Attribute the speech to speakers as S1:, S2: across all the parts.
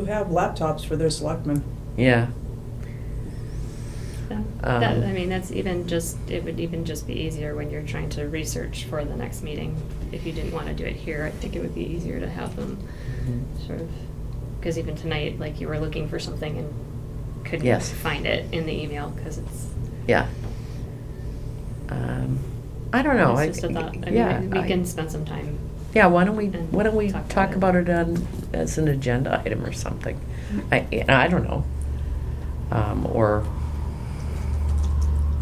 S1: who have laptops for their selectmen.
S2: Yeah.
S3: Yeah.
S2: Um,
S3: That, I mean, that's even just, it would even just be easier when you're trying to research for the next meeting. If you didn't want to do it here, I think it would be easier to have them
S2: Mm-hmm.
S3: sort of, because even tonight, like you were looking for something and couldn't
S2: Yes.
S3: find it in the email because it's,
S2: Yeah. Um, I don't know. I-
S3: it's just a thought. I
S2: yeah,
S3: mean, we-
S2: I-
S3: we can spend some time.
S2: Yeah, why don't we,
S3: and
S2: why don't we
S3: talk
S2: talk about
S3: about
S2: it on, as an agenda item or something? I, and I don't know. Um, or,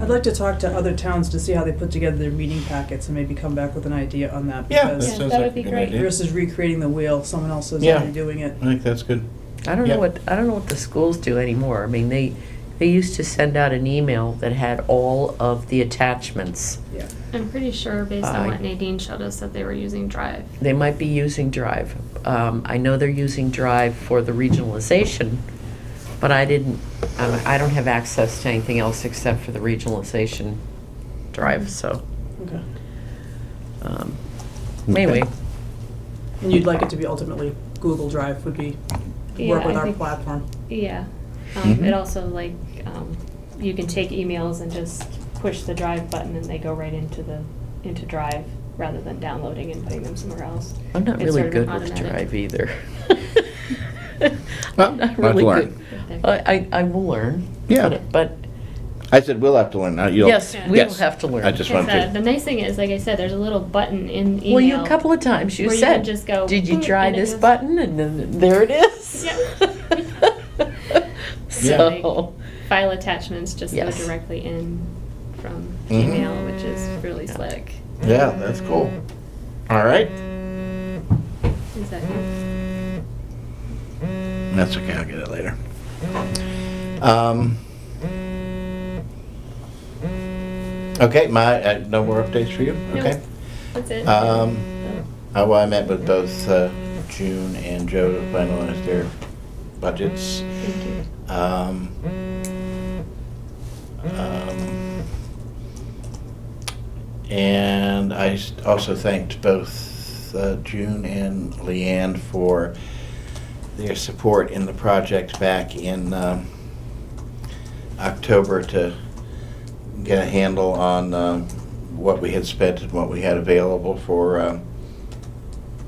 S1: I'd like to talk to other towns to see how they put together their meeting packets and maybe come back with an idea on that.
S4: Yeah, that
S1: because
S3: Yeah,
S4: sounds
S3: that
S4: like
S3: would
S4: a
S3: be
S4: good
S3: great.
S4: idea.
S1: Versus recreating the wheel, someone else is
S4: Yeah.
S1: already doing it.
S4: I think that's good.
S2: I don't
S4: Yeah.
S2: know what, I don't know what the schools do anymore. I mean, they, they used to send out an email that had all of the attachments.
S1: Yeah.
S3: I'm pretty sure based
S2: I-
S3: on what Nadine showed us that they were using Drive.
S2: They might be using Drive. Um, I know they're using Drive for the regionalization, but I didn't, um, I don't have access to anything else except for the regionalization Drive, so.
S1: Okay.
S2: um,
S4: Okay.
S2: Anyway,
S1: And you'd like it to be ultimately Google Drive would be, work
S3: Yeah,
S1: with
S3: I
S1: our
S3: think-
S1: platform.
S3: Yeah,
S2: Mm-hmm.
S3: um, it
S4: Mhm.
S3: also like, um, you can take emails and just push the drive button and they go right into the, into drive rather than downloading and putting them somewhere else.
S2: I'm not
S3: It's
S2: really
S3: sort of
S2: good with
S3: automatic.
S2: Drive e- either.
S4: Well,
S2: I'm
S4: we'll have
S2: not
S4: to
S2: really
S4: learn.
S2: good. I, I I will learn.
S4: Yeah.
S2: but- But,
S4: I said we'll have to learn. Not you'll.
S2: yes, we will
S4: yes.
S2: have to learn.
S4: I
S3: It's,
S4: just wanted
S3: uh,
S4: to.
S3: the nice thing is, like I said, there's a little button in email.
S2: Well, you, a couple of times you
S3: where you can
S2: said,
S3: just go,
S2: did you
S3: "Mm,"
S2: try
S3: and it
S2: this
S3: goes-
S2: button? And then, there it is.
S3: Yeah.
S2: So,
S3: File attachments just go
S2: Yes. Mm-hmm.
S3: directly in from
S4: Mhm.
S3: Gmail, which is really slick.
S4: Yeah, that's cool. All right.
S3: Is that cool?
S4: Mm, That's okay. I'll get it later. Um. Okay, my uh, no more updates for you.
S3: No.
S4: Okay.
S3: That's it? Oh,
S4: Um, Uh, well, I met with both uh, June and Joe to finalize their budgets.
S3: Thank you.
S4: Um, um, and I s- also thanked both uh, June and Leanne for their support in the project back in um, October to get a handle on um, what we had spent and what we had available for um,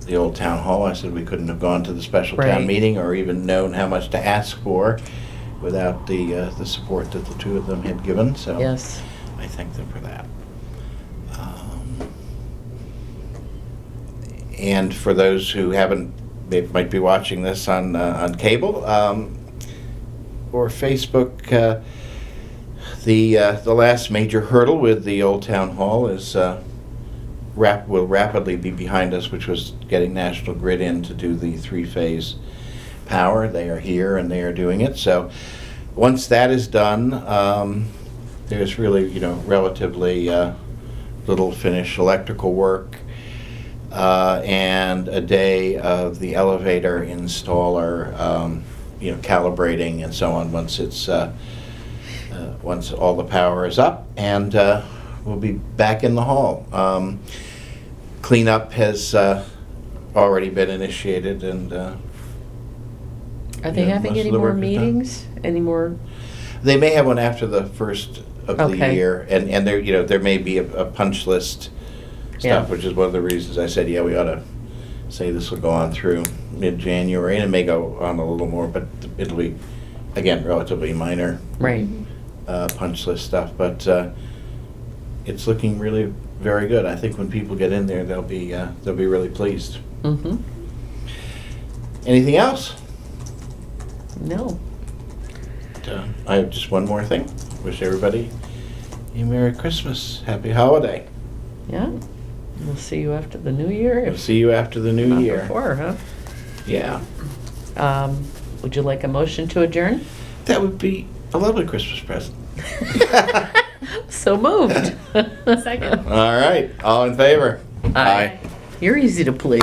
S4: the old town hall. I said we couldn't have gone to the special
S2: Right.
S4: town meeting or even known how much to ask for without the, uh, the support that the two of them had given, so.
S2: yes.
S4: I thank them for that. Um, And for those who haven't, they might be watching this on, uh, on cable um, or Facebook, uh, the, uh, the last major hurdle with the Old Town Hall is, uh, rap, will rapidly be behind us, which was getting National Grid in to do the three-phase power. They are here and they are doing it, so once that is done, um, there's really, you know, relatively uh, little finished electrical work uh, and a day of the elevator installer, um, you know, calibrating and so on once it's, uh, uh, once all the power is up, and uh, we'll be back in the hall. Um, Cleanup has uh, already been initiated and uh,
S2: Are they
S4: Yeah,
S2: having
S4: most of
S2: any
S4: the
S2: more
S4: work is done.
S2: meetings? Any more?
S4: They may have one after the first of the
S2: Okay.
S4: year, and, and there, you know, there may be a, a punch list
S2: Yeah.
S4: stuff, which is one of the reasons I said, yeah, we ought to say this will go on through mid-January, and it may go on a little more, but it'll be, again, relatively minor,
S3: Mm-hmm.
S2: Right.
S4: uh, punch list stuff, but, uh, it's looking really very good. I think when people get in there, they'll be, uh, they'll be really pleased.
S2: Mm-hmm.
S4: Anything else?
S2: No.
S4: Uh, I have just one more thing. Wish everybody a Merry Christmas, Happy Holiday.
S2: Yeah. We'll see you after the new year.
S4: We'll
S2: if
S4: see you after the new
S2: not
S4: year.
S2: Before, huh?
S4: Yeah.
S2: Um, would you like a motion to adjourn?
S4: That would be a lovely Christmas present.
S2: So moved.
S3: Second.
S4: All right. All in favor?
S2: Aye. You're easy to please.